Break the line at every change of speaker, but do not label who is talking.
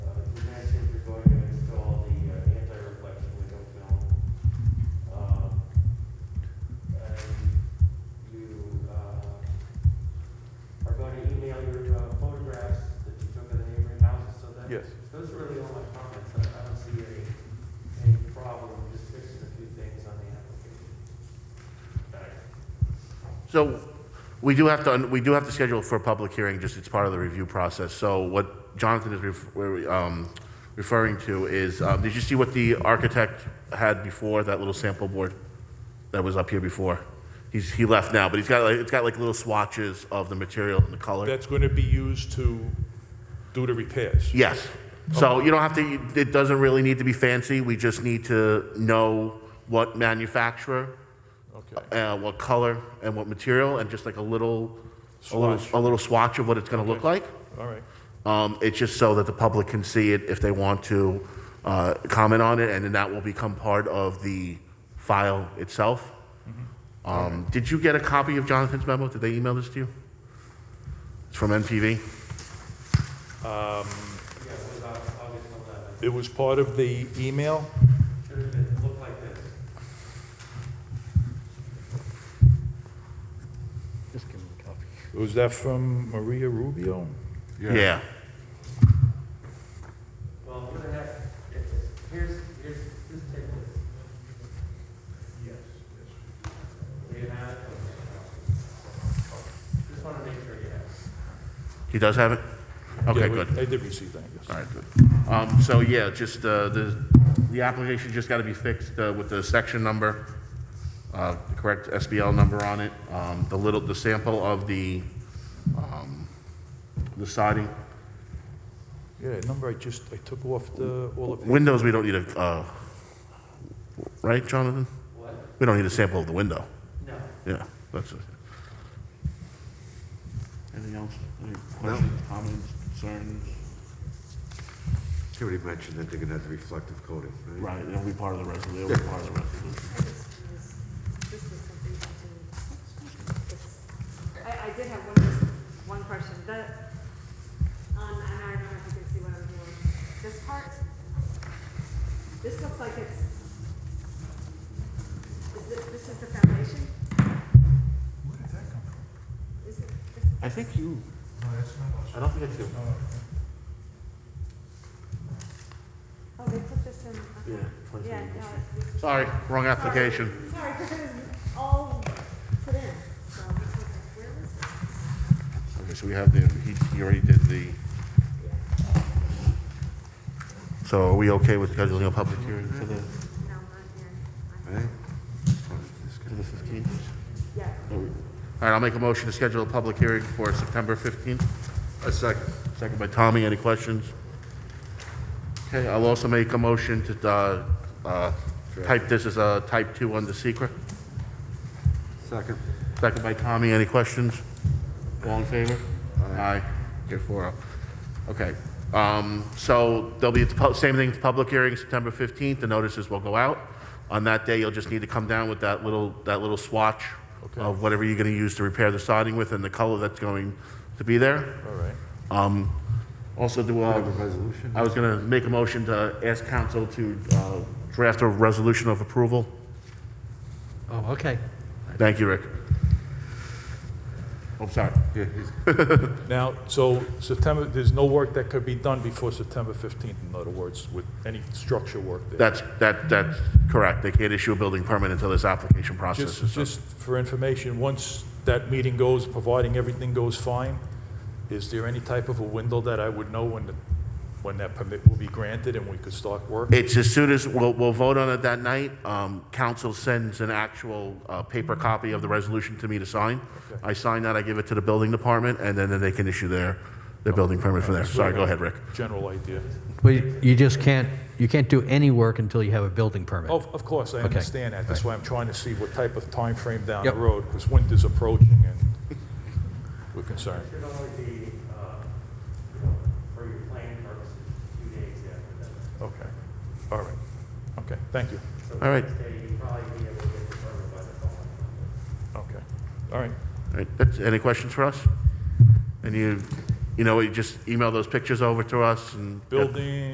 Those are really all my comments. I I don't see a, a problem, just fixing a few things on the application.
So we do have to, we do have to schedule for a public hearing, just it's part of the review process. So what Jonathan is ref- um, referring to is, um, did you see what the architect had before, that little sample board that was up here before? He's, he left now, but he's got like, it's got like little swatches of the material and the color.
That's going to be used to do the repairs.
Yes. So you don't have to, it doesn't really need to be fancy. We just need to know what manufacturer
Okay.
uh, what color and what material, and just like a little, a
Swatch.
little, a little swatch of what it's going to look like.
All right.
Um, it's just so that the public can see it if they want to uh, comment on it, and then that will become part of the file itself.
Mm-hmm.
Um, did you get a copy of Jonathan's memo? Did they email this to you? It's from MPV.
Yeah, it was Au- August eleventh.
It was part of the email?
Should have been, looked like this.
Just give him a copy.
Was that from Maria Rubio?
Yeah.
Well, I'm gonna have, it's, here's, here's, just take this. Yes. Do you have? it? Just wanna make sure you have. it.
He does have it. Okay,
Yeah, we-
good.
I did receive that, yes.
All right, good. Um, So, yeah, just, uh, the, the application just got to be fixed uh, with the section number, uh, the correct SBL number on it, um, the little, the sample of the, um, the siding.
Yeah, that number I just, I took off the, all of the,
Windows, we don't need a, uh, right, Jonathan?
What?
We don't need a sample of the window.
No.
Yeah, that's it. Anything else? Any questions, comments, concerns?
Somebody mentioned that they're gonna have reflective coating, right?
Right, it'll be part of the resolution, it'll be part of the resolution.
This was something that you- I, I did have one, one question, that, um, and I don't know if you can see what I'm doing. This part, this looks like it's, is this, this is the foundation? Where did that come from? Is it, this-
I think you. I don't think I do.
oh, they put this in, okay. Yeah, no, it's.
Sorry, wrong application.
Sorry, because it was all put in, so, I was like, where was it?
Okay, so we have the, he, he already did the. So are we okay with scheduling a public hearing for the,
No, not here. I'm-
Right?
for the fifteenth?
Yeah.
All right, I'll make a motion to schedule a public hearing for September fifteenth.
A second.
Second by Tommy, any questions? Okay, I'll also make a motion to, uh, uh, type this as a type two under secret.
Second.
Second by Tommy, any questions? All in favor? Aye. Here four oh. Okay, um, so there'll be, the pub- same thing, public hearing, September 15th, the notices will go out. On that day, you'll just need to come down with that little, that little swatch
Okay.
of whatever you're gonna use to repair the siding with and the color that's going to be there.
all right.
Um, also do,
Have a
uh,
resolution?
I was gonna make a motion to ask council to, uh, draft a resolution of approval.
Oh, okay.
Thank you, Rick. I'm sorry.
Yeah, he's-
Now, so September, there's no work that could be done before September 15th, in other words, with any structure work there?
That's, that, that's correct. They can't issue a building permit until this application process
Just,
is done.
just for information, once that meeting goes, providing everything goes fine, is there any type of a window that I would know when, the- when that permit will be granted and we could start work?
It's as soon as, we'll, we'll vote on it that night. Um, council sends an actual, uh, paper copy of the resolution to me to sign. I sign that, I give it to the building department, and then, then they can issue their, their building permit from there. Sorry, go ahead, Rick.
General idea.
Well, you you just can't, you can't do any work until you have a building permit.
Of, of course, I
Okay.
understand that. That's why I'm trying to see what type of time frame down the
Yep.
road, because winter's approaching and we're concerned.
It should only be, uh, you know, for your planning purposes, two days after that.
Okay, all right. Okay, thank you.
So
All right.
the next day, you probably be able to get the permit by the following Monday.
Okay, all right.
All right, that's, any questions for us? And you, you know, you just email those pictures over to us and.
Building